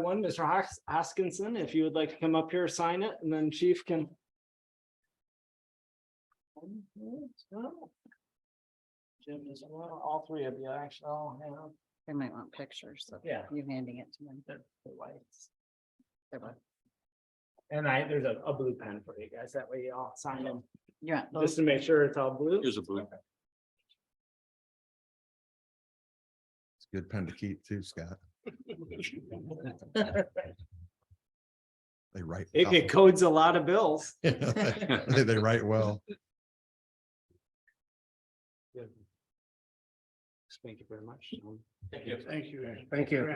One, Mr. Hos- Hoskinson, if you would like to come up here, sign it, and then chief can. Jim as well, all three of you actually all have. They might want pictures of Yeah. you handing it to them. their- their lights. They will. And I, there's a, a blue pen for you guys, that way you all sign them, You want just those? to make sure it's all blue. Here's a blue. It's a good pen to keep too, Scott. They write. It it codes a lot of bills. well. They they write well. Thank you very much. Thank you. Thank you. Thank you.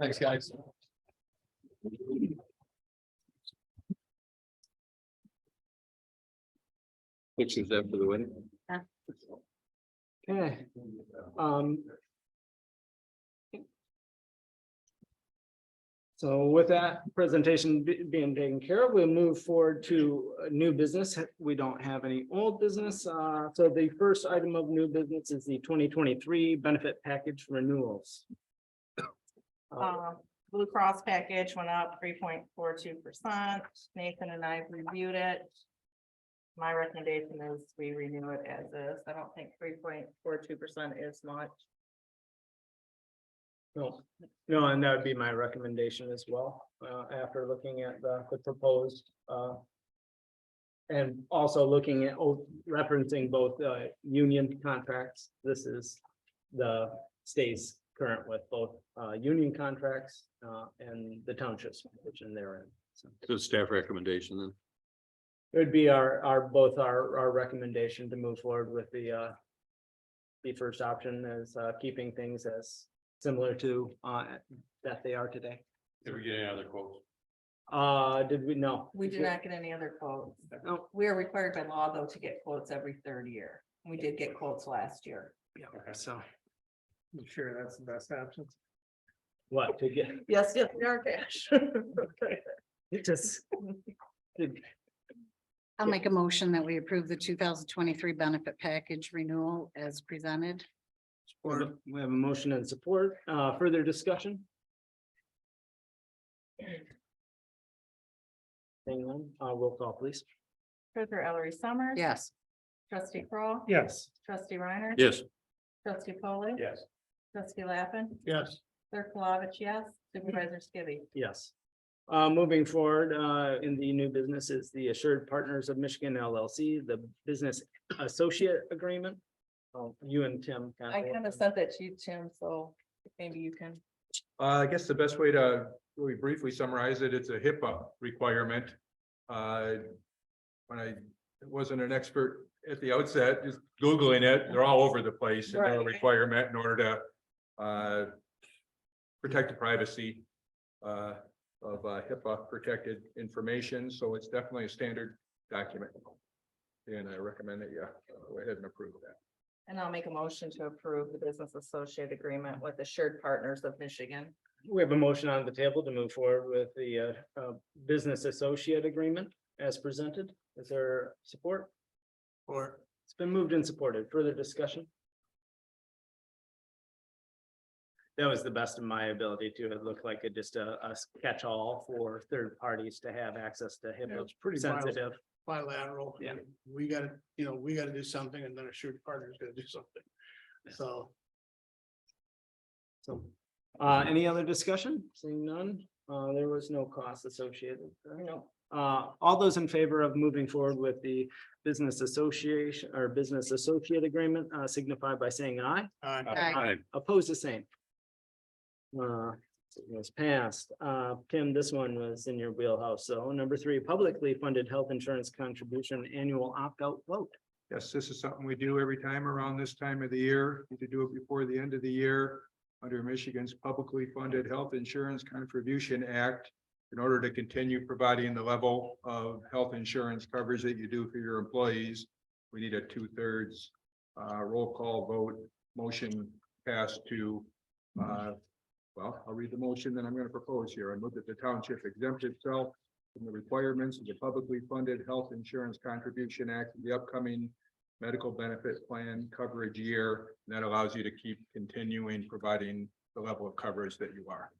Thanks, guys. Pictures after the wedding. Okay, um. So with that presentation be- being taken care of, we'll move forward to uh, new business. We don't have any old business. Uh, so the first item of new business is the twenty twenty-three benefit package renewals. Uh, Um, Blue Cross package went up three point four two percent. Nathan and I reviewed it. My recommendation is we renew it as is. I don't think three point four two percent is much. No, no, and that would be my recommendation as well, uh, after looking at the, the proposed, uh. And also looking at, oh, referencing both, uh, union contracts, this is the stays current with both, uh, union contracts, uh, and the townships, which in their end. So So staff recommendation then. it would be our, our, both our, our recommendation to move forward with the, uh. The first option is, uh, keeping things as similar to, uh, that they are today. Did we get any other quotes? Uh, did we, no. Oh, We did not get any other quotes. No. We are required by law, though, to get quotes every third year. We did get quotes last year. Yeah, so, I'm sure that's the best option. what, to get, Yes, yes, they are cash. it just. I'll make a motion that we approve the two thousand twenty-three benefit package renewal as presented. We have a motion and support, uh, further discussion? Hang on, uh, roll call please. Treasurer Ellery Summers. Yes. Trustee Crawl. Yes. Trustee Reiner. Yes. Trustee Polly. Yes. Trustee Lappin. Yes. Clerk Palovich, yes. Supervisor Skibby. Yes. Uh, moving forward, uh, in the new business is the Assured Partners of Michigan LLC, the Business Associate Agreement. Oh, you and Tim. I kind of sent that to you, Tim, so maybe you can. Uh, I guess the best way to really briefly summarize it, it's a HIPAA requirement. Uh, When I wasn't an expert at the outset, just Googling it, they're all over the place, and they're a Right. requirement in order to uh, protect the privacy uh, of uh, HIPAA protected information, so it's definitely a standard document. And I recommend that you go ahead and approve that. And I'll make a motion to approve the business associate agreement with Assured Partners of Michigan. We have a motion on the table to move forward with the uh, uh, business associate agreement as presented. Is there support? Or it's been moved and supported. Further discussion? That was the best of my ability to It looked like it just uh, a a catch-all for third parties to have access to Yeah, HIPAA it's pretty bil- sensitive. bilateral. Yeah. We gotta, you know, we gotta do something and then a sure partner's gonna do something. So. So, uh, any other discussion? Seeing none, uh, there was no cost associated. No. Uh, all those in favor of moving forward with the business association or business associate agreement, uh, signify by saying aye. uh, Aye. Oppose the same. Uh, it was passed. Uh, Tim, this one was in your wheelhouse. So number three, publicly funded health insurance contribution annual opt-out vote. Yes, this is something we do every time around this time of the year, You to do it before the end of the year. Under Michigan's publicly funded Health Insurance Contribution Act. In order to continue providing the level of health insurance coverage that you do for your employees. We need a two thirds uh roll call vote, motion passed to uh. Well, I'll read the motion that I'm gonna propose here. I move that the township exempt itself from the requirements of the publicly funded Health Insurance Contribution Act, in the upcoming medical benefit plan coverage year. and That allows you to keep continuing providing the level of coverage that you are.